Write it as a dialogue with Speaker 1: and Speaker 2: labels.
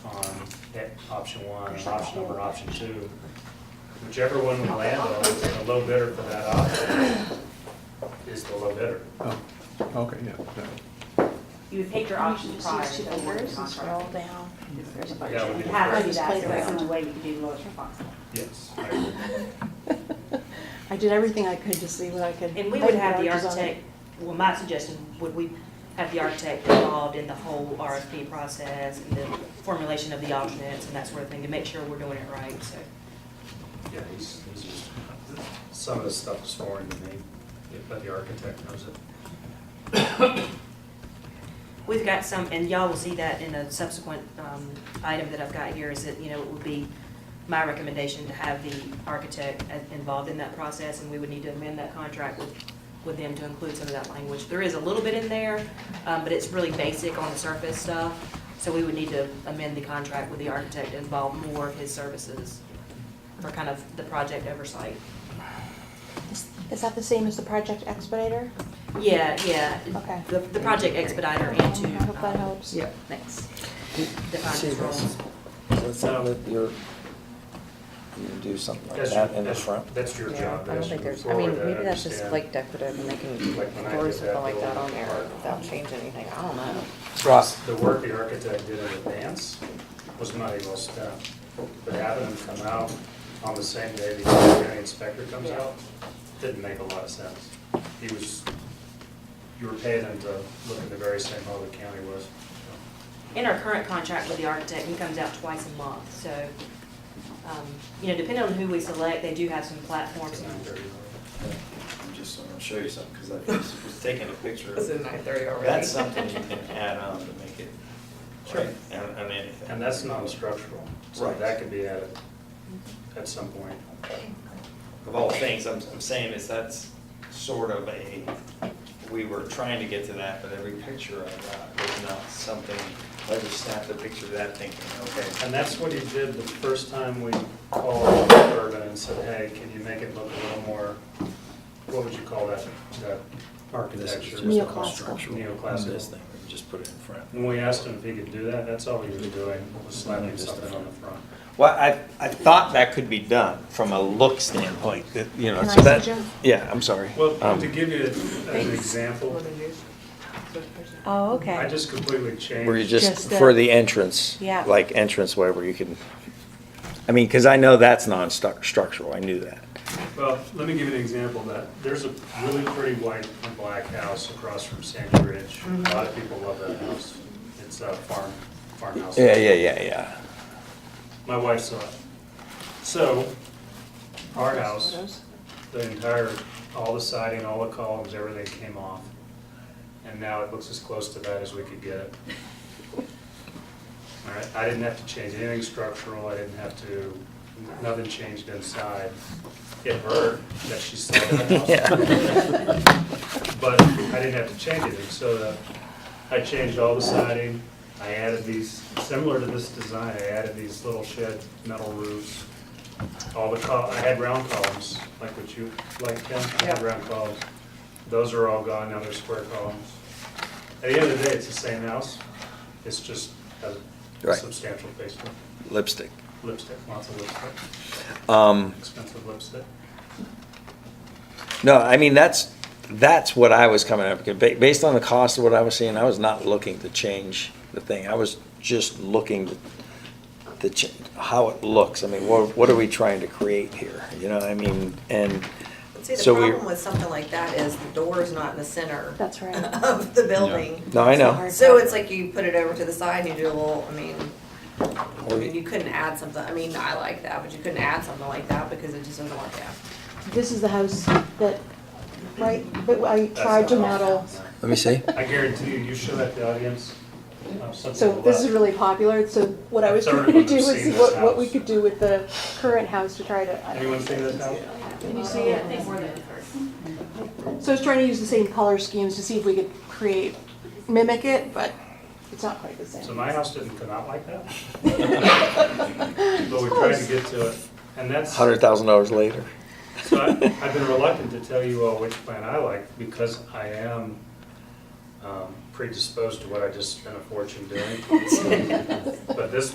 Speaker 1: that option one, and option number, option two. Whichever one we land on, the low bidder for that option is the low bidder.
Speaker 2: Oh, okay, yeah. that-
Speaker 3: You would pick your option prior to the award
Speaker 4: and scroll
Speaker 3: contract.
Speaker 4: down. There's a bunch
Speaker 1: Yeah, we
Speaker 3: You
Speaker 1: did.
Speaker 4: of-
Speaker 3: have to do
Speaker 4: Just
Speaker 3: that,
Speaker 4: play
Speaker 3: so that's the
Speaker 4: around.
Speaker 3: only way you can do the lowest responsible.
Speaker 1: Yes. I agree.
Speaker 4: I did everything I could to see what I could.
Speaker 3: And we
Speaker 4: I
Speaker 3: would
Speaker 4: put
Speaker 3: have the
Speaker 4: arches on it.
Speaker 3: architect, well, my suggestion, would we have the architect involved in the whole RFP process and the formulation of the alternates and that sort of thing to make sure we're doing it right, so.
Speaker 1: Yeah, he's, he's just, some of the stuff is foreign to me, but the architect knows it.
Speaker 3: We've got some, and y'all will see that in a subsequent um, item that I've got here, is that, you know, it would be my recommendation to have the architect a- involved in that process, and we would need to amend that contract with, with them to include some of that language. There is a little bit in there, um, but it's really basic on the surface stuff, so we would need to amend the contract with the architect to involve more of his services for kind of the project oversight.
Speaker 4: Is is that the same as the project expeditor?
Speaker 3: Yeah, yeah.
Speaker 4: Okay.
Speaker 3: The, the project expediter into.
Speaker 4: I hope that
Speaker 3: um,
Speaker 4: helps.
Speaker 5: Yeah.
Speaker 3: Thanks. The
Speaker 5: See
Speaker 3: finance
Speaker 5: this?
Speaker 3: roles.
Speaker 5: Does it sound that you're, you do something like
Speaker 1: That's-
Speaker 5: that in the
Speaker 1: that's-
Speaker 5: front?
Speaker 1: That's your
Speaker 6: Yeah,
Speaker 1: job.
Speaker 6: I don't
Speaker 1: that's
Speaker 6: think
Speaker 1: your
Speaker 6: there's, I mean,
Speaker 1: floor,
Speaker 6: maybe that's just
Speaker 1: understand.
Speaker 6: like decorative and they can
Speaker 1: Like when I
Speaker 6: throw
Speaker 1: did
Speaker 6: something
Speaker 1: that
Speaker 6: like that
Speaker 1: little
Speaker 6: on there
Speaker 1: part.
Speaker 6: without changing anything, I don't know.
Speaker 5: Right.
Speaker 1: The work the architect did in advance was money well spent. But having them come out on the same day the county inspector comes out, didn't make a lot of sense. He was, you were paying him to look at the very same hole the county was.
Speaker 3: in our current contract with the architect, he comes out twice a month, so, um, you know, depending on who we select, they do have some platforms.
Speaker 7: I'm just, I'm gonna show you something, because I was was taking a picture.
Speaker 6: It's
Speaker 7: of
Speaker 6: in nine thirty already.
Speaker 7: That's something you can add on to make it,
Speaker 6: Sure.
Speaker 7: right, and, and anything.
Speaker 1: And that's non-structural, so
Speaker 7: Right.
Speaker 1: that could be added at some point.
Speaker 7: Of all things, I'm, I'm saying is that's sort of a, we were trying to get to that, but every picture I got was not something, I just snapped a picture of that thinking, okay,
Speaker 1: And that's what he did the first time we called Urban and said, hey, can you make it look a little more, what would you call that, that architecture?
Speaker 4: Neoclassical.
Speaker 7: This
Speaker 1: Neoclassical.
Speaker 7: thing, we just put it in front.
Speaker 1: When we asked him if he could do that, that's all he was doing, was slapping something on the front.
Speaker 5: Well, I, I thought that could be done from a look standpoint, that, you know,
Speaker 4: Can
Speaker 5: so
Speaker 4: I
Speaker 5: that,
Speaker 4: suggest?
Speaker 5: yeah, I'm sorry.
Speaker 1: Well,
Speaker 5: Um,
Speaker 1: to give you an example,
Speaker 4: Oh,
Speaker 1: I
Speaker 4: okay.
Speaker 1: just completely changed.
Speaker 5: Where you just,
Speaker 4: Just the-
Speaker 5: for the entrance?
Speaker 4: Yeah.
Speaker 5: Like entrance way where you can, I mean, because I know that's non-structural, I knew that.
Speaker 1: Well, let me give you an example of that. There's a really pretty white and black house across from Sandy Ridge. A lot of people love that house. It's a farm, farmhouse.
Speaker 5: Yeah, yeah, yeah, yeah.
Speaker 1: My wife saw it. So, our house, the entire, all the siding, all the columns, everything came off. And now it looks as close to that as we could get it. All right, I didn't have to change anything structural, I didn't have to, nothing changed inside. It hurt that she saw that house but I didn't have to change anything, so the, I changed all the siding, I added these, similar to this design, I added these little shed metal roofs. All the col, I had round columns, like what you, like Kim, I had round columns. Those are all gone, now they're square columns. At the end of the day, it's the same house, it's just has a
Speaker 5: Right.
Speaker 1: substantial facelift,
Speaker 5: Lipstick.
Speaker 1: lipstick, lots of lipstick,
Speaker 5: Um,
Speaker 1: expensive lipstick.
Speaker 5: No, I mean, that's, that's what I was coming up, with. Ba- based on the cost of what I was seeing, I was not looking to change the thing. I was just looking to, the, ch- how it looks. I mean, what, what are we trying to create here? You know, I mean, and
Speaker 8: See, the
Speaker 5: so we.
Speaker 8: problem with something like that is the door is not in the center
Speaker 4: That's right.
Speaker 8: of the building.
Speaker 5: No, I know.
Speaker 8: So it's like you put it over to the side and you do a little, I mean, I
Speaker 5: Or-
Speaker 8: mean, you couldn't add something, I mean, I like that, but you couldn't add something like that because it just doesn't work out.
Speaker 4: This is the house that, right, but I
Speaker 1: That's
Speaker 4: tried to
Speaker 1: not all.
Speaker 4: model.
Speaker 5: Let me see.
Speaker 1: I guarantee you, you show that to the audience, uh, something.
Speaker 4: So
Speaker 1: will
Speaker 4: this
Speaker 1: last.
Speaker 4: is really popular, so what I was
Speaker 1: Sorry,
Speaker 4: trying to
Speaker 1: I've
Speaker 4: do was
Speaker 1: seen
Speaker 4: see
Speaker 1: this
Speaker 4: what, what we
Speaker 1: house.
Speaker 4: could do with the current house to try to. I don't know.
Speaker 1: Anyone see this house?
Speaker 4: Can you see it? So I was trying to use the same color schemes to see if we could create, mimic it, but it's not quite the same.
Speaker 1: So my house didn't come out like that. But we tried to get to it, and that's, so
Speaker 5: Hundred thousand dollars later.
Speaker 1: I- I've been reluctant to tell you all which plan I like, because I am um, predisposed to what I just spent a fortune doing. But this